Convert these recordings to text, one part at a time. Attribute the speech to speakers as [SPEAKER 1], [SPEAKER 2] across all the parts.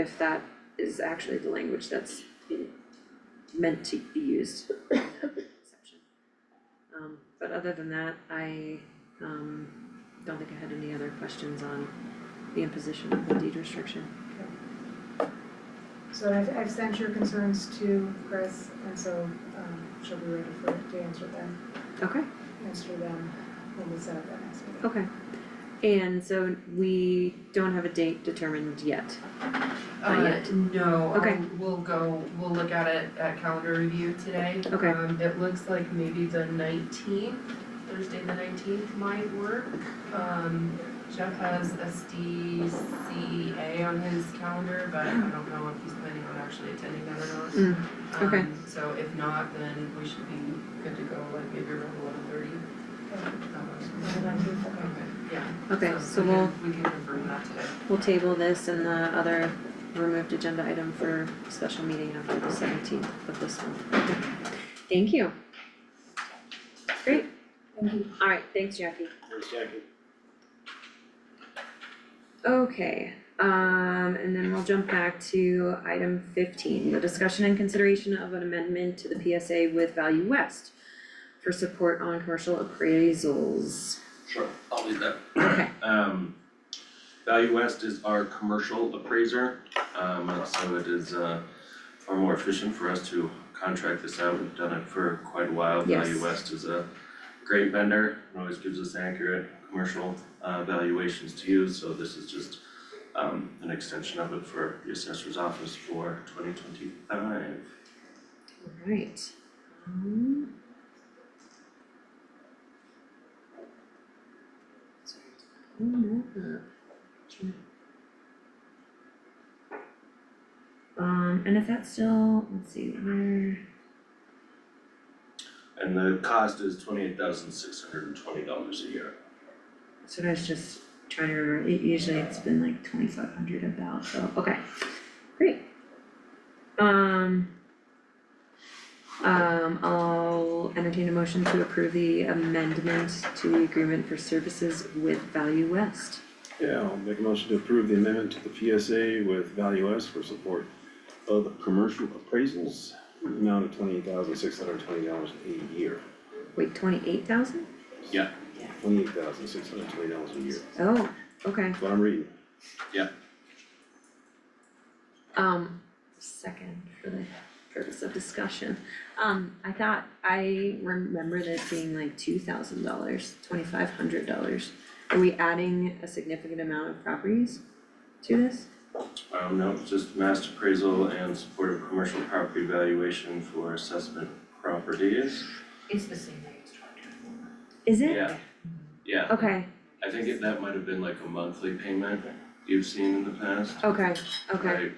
[SPEAKER 1] if that is actually the language that's in- meant to be used. in that section. Um, but other than that, I, um, don't think I had any other questions on the imposition of the deed restriction.
[SPEAKER 2] So I've, I've sent your concerns to Chris, and so, um, she'll be ready for, to answer them,
[SPEAKER 1] Okay,
[SPEAKER 2] answer them when we set up that next meeting.
[SPEAKER 1] okay. And so we don't have a date determined yet. Not
[SPEAKER 3] Uh,
[SPEAKER 1] yet.
[SPEAKER 3] no,
[SPEAKER 1] Okay.
[SPEAKER 3] um, we'll go, we'll look at it at calendar review today.
[SPEAKER 1] Okay.
[SPEAKER 3] Um, it looks like maybe the nineteenth, Thursday the nineteenth might work. Um, Jeff has SDCA on his calendar, but I don't know if he's planning on actually attending that or not.
[SPEAKER 1] Mm, okay.
[SPEAKER 3] Um, so if not, then we should be good to go like maybe around eleven thirty.
[SPEAKER 2] On the 19th, okay.
[SPEAKER 3] Okay, yeah.
[SPEAKER 1] okay, so
[SPEAKER 3] we
[SPEAKER 1] we'll,
[SPEAKER 3] can- We can confirm that today.
[SPEAKER 1] we'll table this and the other removed agenda item for special meeting after the seventeenth of this month. Okay. Thank you. Great.
[SPEAKER 2] Thank you.
[SPEAKER 1] Alright, thanks Jackie.
[SPEAKER 4] Where's Jackie?
[SPEAKER 1] Okay, um, and then we'll jump back to item fifteen, the discussion and consideration of an amendment to the PSA with Value West for support on commercial appraisals.
[SPEAKER 4] Sure, I'll do that.
[SPEAKER 1] Okay,
[SPEAKER 4] Um, Value West is our commercial appraiser, um, and so it is, uh, far more efficient for us to contract this out, we've done it for quite a while.
[SPEAKER 1] Yes.
[SPEAKER 4] Value West is a great vendor, and always gives us accurate commercial, uh, valuations to use, so this is just, um, an extension of it for the assessor's office for twenty twenty-five.
[SPEAKER 1] alright. Um, sorry, oh no, uh, trying to- Um, and if that's still, let's see, where,
[SPEAKER 4] And the cost is twenty-eight thousand six hundred and twenty dollars a year.
[SPEAKER 1] That's what I was just trying to remember, it usually it's been like twenty five hundred about, so, okay, great. Um. Um, I'll entertain a motion to approve the amendment to the agreement for services with Value West.
[SPEAKER 5] Yeah, I'll make a motion to approve the amendment to the PSA with Value S for support of commercial appraisals in the amount of twenty-eight thousand six hundred twenty dollars a year.
[SPEAKER 1] Wait, twenty eight thousand?
[SPEAKER 5] Twenty-eight thousand six hundred twenty dollars a year,
[SPEAKER 1] Oh, okay,
[SPEAKER 5] that's what I'm reading.
[SPEAKER 1] um, second for the purpose of discussion. Um, I thought, I remember this being like two thousand dollars, twenty five hundred dollars. Are we adding a significant amount of properties to this?
[SPEAKER 4] Um, no, it's just mass appraisal and supportive commercial property valuation for assessment properties.
[SPEAKER 3] It's the same thing as twenty twenty four.
[SPEAKER 1] Is it?
[SPEAKER 4] Yeah, yeah,
[SPEAKER 1] Okay,
[SPEAKER 4] I think it- that might have been like a monthly payment you've seen in the past.
[SPEAKER 1] okay, okay,
[SPEAKER 4] I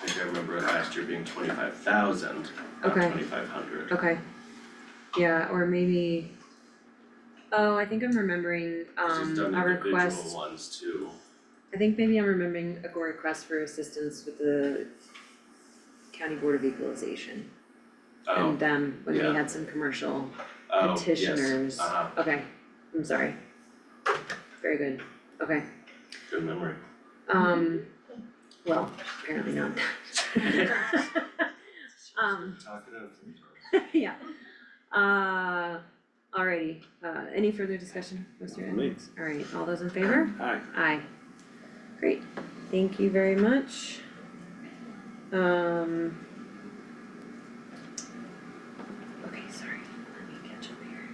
[SPEAKER 4] I think I remember it last year being twenty-five thousand, not
[SPEAKER 1] Okay. Um,
[SPEAKER 4] twenty-five hundred.
[SPEAKER 1] okay. Yeah, or maybe. Oh, I think I'm remembering um a
[SPEAKER 4] done
[SPEAKER 1] request
[SPEAKER 4] individual ones too.
[SPEAKER 1] I think maybe I'm remembering a GOR request for assistance with the County Board of Equalization
[SPEAKER 4] Oh,
[SPEAKER 1] and them, when we
[SPEAKER 4] yeah.
[SPEAKER 1] had some commercial
[SPEAKER 4] oh, yes,
[SPEAKER 1] petitioners.
[SPEAKER 4] uh-huh,
[SPEAKER 1] Okay, I'm sorry. Very good, okay,
[SPEAKER 4] good memory.
[SPEAKER 1] um, well, apparently not. Um,
[SPEAKER 4] Talkative.
[SPEAKER 1] yeah, uh, alrighty, uh, any further discussion, Mr.
[SPEAKER 5] Not me.
[SPEAKER 1] Edwards? Alright, all those in favor?
[SPEAKER 5] Hi.
[SPEAKER 1] Aye. Great, thank you very much. Um. Okay, sorry, let me catch up here.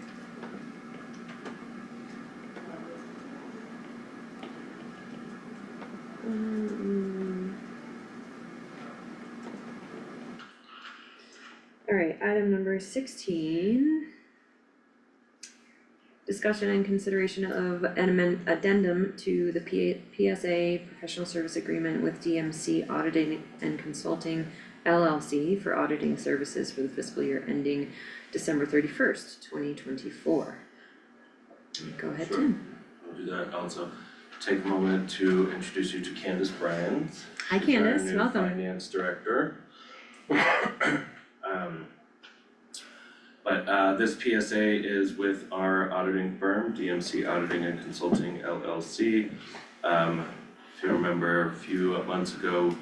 [SPEAKER 1] Um. Alright, item number sixteen. Discussion and consideration of an amend- addendum to the P- PSA Professional Service Agreement with DMC Auditing and Consulting LLC for auditing services for the fiscal year ending December thirty-first, twenty twenty-four. Go ahead,
[SPEAKER 4] Sure.
[SPEAKER 1] Tim.
[SPEAKER 4] I'll do that also. Take a moment to introduce you to Candace Bryant.
[SPEAKER 1] Hi
[SPEAKER 4] She's our
[SPEAKER 1] Candace,
[SPEAKER 4] new
[SPEAKER 1] welcome.
[SPEAKER 4] finance director. Um, But uh this PSA is with our auditing firm, DMC Auditing and Consulting LLC. Um, if you remember, a few months ago,